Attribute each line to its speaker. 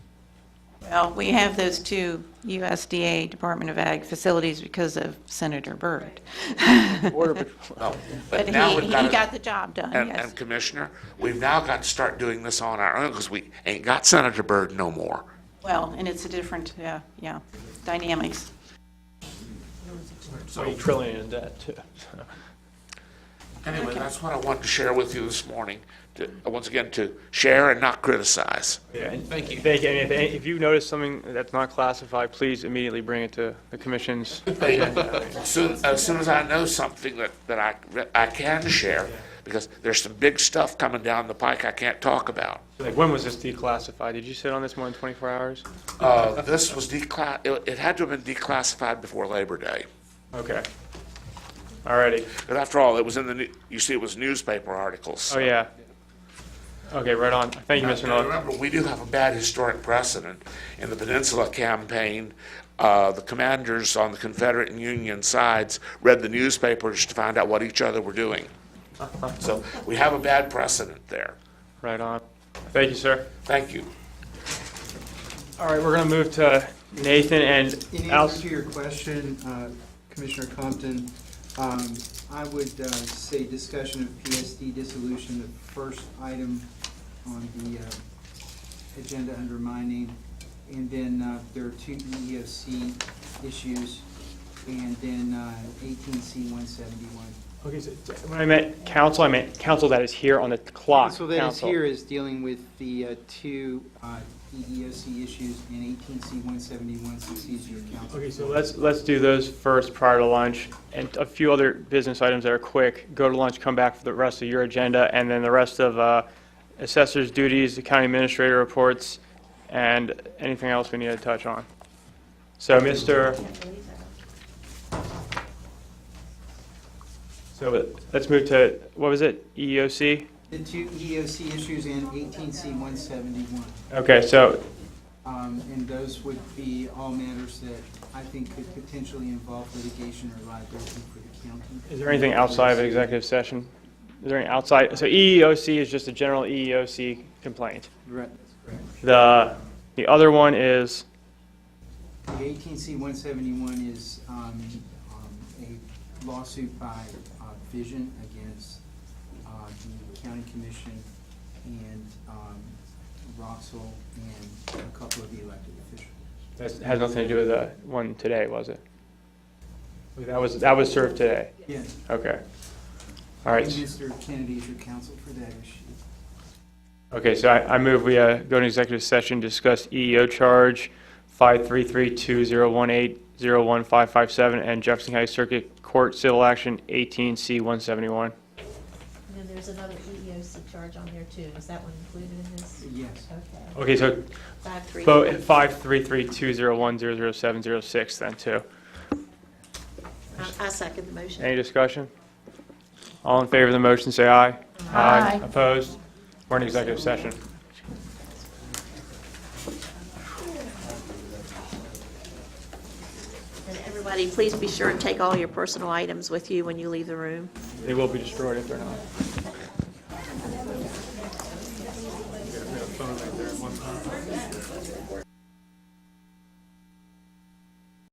Speaker 1: Well, we have those two USDA Department of Ag facilities because of Senator Byrd.
Speaker 2: Border Patrol.
Speaker 3: No,
Speaker 1: But
Speaker 3: but
Speaker 1: he,
Speaker 3: now
Speaker 1: he
Speaker 3: we've got. to-
Speaker 1: got the job done,
Speaker 3: And,
Speaker 1: yes.
Speaker 3: and Commissioner, we've now got to start doing this on our own because we ain't got Senator Byrd no more.
Speaker 1: Well, and it's a different, yeah, yeah, dynamics.
Speaker 2: So. Trillion in debt, too.
Speaker 3: Anyway, that's what I wanted to share with you this morning, to, once again, to share and not criticize.
Speaker 2: Thank you. Thank you. And if, if you notice something that's not classified, please immediately bring it to the commission's.
Speaker 3: uh, Soon, as soon as I know something that, that I, that I can share, because there's some big stuff coming down the pike I can't talk about.
Speaker 2: Like, when was this declassified? Did you sit on this more than 24 hours?
Speaker 3: Uh, this was declass, it, it had to have been declassified before Labor Day.
Speaker 2: Okay. All righty.
Speaker 3: But after all, it was in the, new- you see, it was newspaper articles.
Speaker 2: Oh, yeah. Okay, right on. Thank you, Mr.
Speaker 3: Now,
Speaker 2: Miller.
Speaker 3: remember, we do have a bad historic precedent. In the Peninsula Campaign, uh, the commanders on the Confederate and Union sides read the newspapers to find out what each other were doing. So we have a bad precedent there.
Speaker 2: Right on. Thank you, sir.
Speaker 3: Thank you.
Speaker 2: All right, we're going to move to Nathan and
Speaker 4: In
Speaker 2: Al.
Speaker 4: answer to your question, uh, Commissioner Compton, um, I would uh, say discussion of PSD dissolution, the first item on the uh, agenda under my name. And then uh, there are two EEOC issues, and then uh, eighteen C one seventy-one.
Speaker 2: Okay, so when I meant council, I meant council that is here on the clock.
Speaker 4: So that is
Speaker 2: council.
Speaker 4: here is dealing with the uh, two uh, EEOC issues and eighteen C one seventy-one succeeds your counsel.
Speaker 2: Okay, so let's, let's do those first prior to lunch, and a few other business items that are quick. Go to lunch, come back for the rest of your agenda, and then the rest of uh, assessors' duties, the county administrator reports, and anything else we need to touch on. So, Mr. So let's move to, what was it, E EEOC?
Speaker 4: The two EOC issues and eighteen C one seventy-one.
Speaker 2: Okay, so,
Speaker 4: Um, and those would be all matters that I think could potentially involve litigation or liability for the county.
Speaker 2: is there anything outside of executive session? Is there any outside, so E EEOC is just a general E EEOC complaint?
Speaker 4: Right, that's
Speaker 2: The, the other one is,
Speaker 4: correct. The eighteen C one seventy-one is, um, um, a lawsuit by, uh, Vision against, uh, the county commission and, um, Roxel and a couple of the elected officials.
Speaker 2: that has nothing to do with the one today, was it? That was, that was served today,
Speaker 4: Yeah,
Speaker 2: okay. All right,
Speaker 4: and Mr. Kennedy is your counsel for that issue.
Speaker 2: okay, so I, I move we uh, go to executive session, discuss EEO charge 533-2018-015557 and Jefferson County Circuit Court Civil Action 18C171.
Speaker 5: And then there's another E EEOC charge on there too. Is that one included in this?
Speaker 4: Yes.
Speaker 5: Okay.
Speaker 2: Okay, so
Speaker 5: Five, three.
Speaker 2: vote 533-201-00706 then too.
Speaker 5: I- I second the motion.
Speaker 2: Any discussion? All in favor of the motion, say aye.
Speaker 1: Aye.
Speaker 2: Opposed? We're in executive session.
Speaker 6: And everybody, please be sure and take all your personal items with you when you leave the room.
Speaker 2: They will be destroyed if they're not.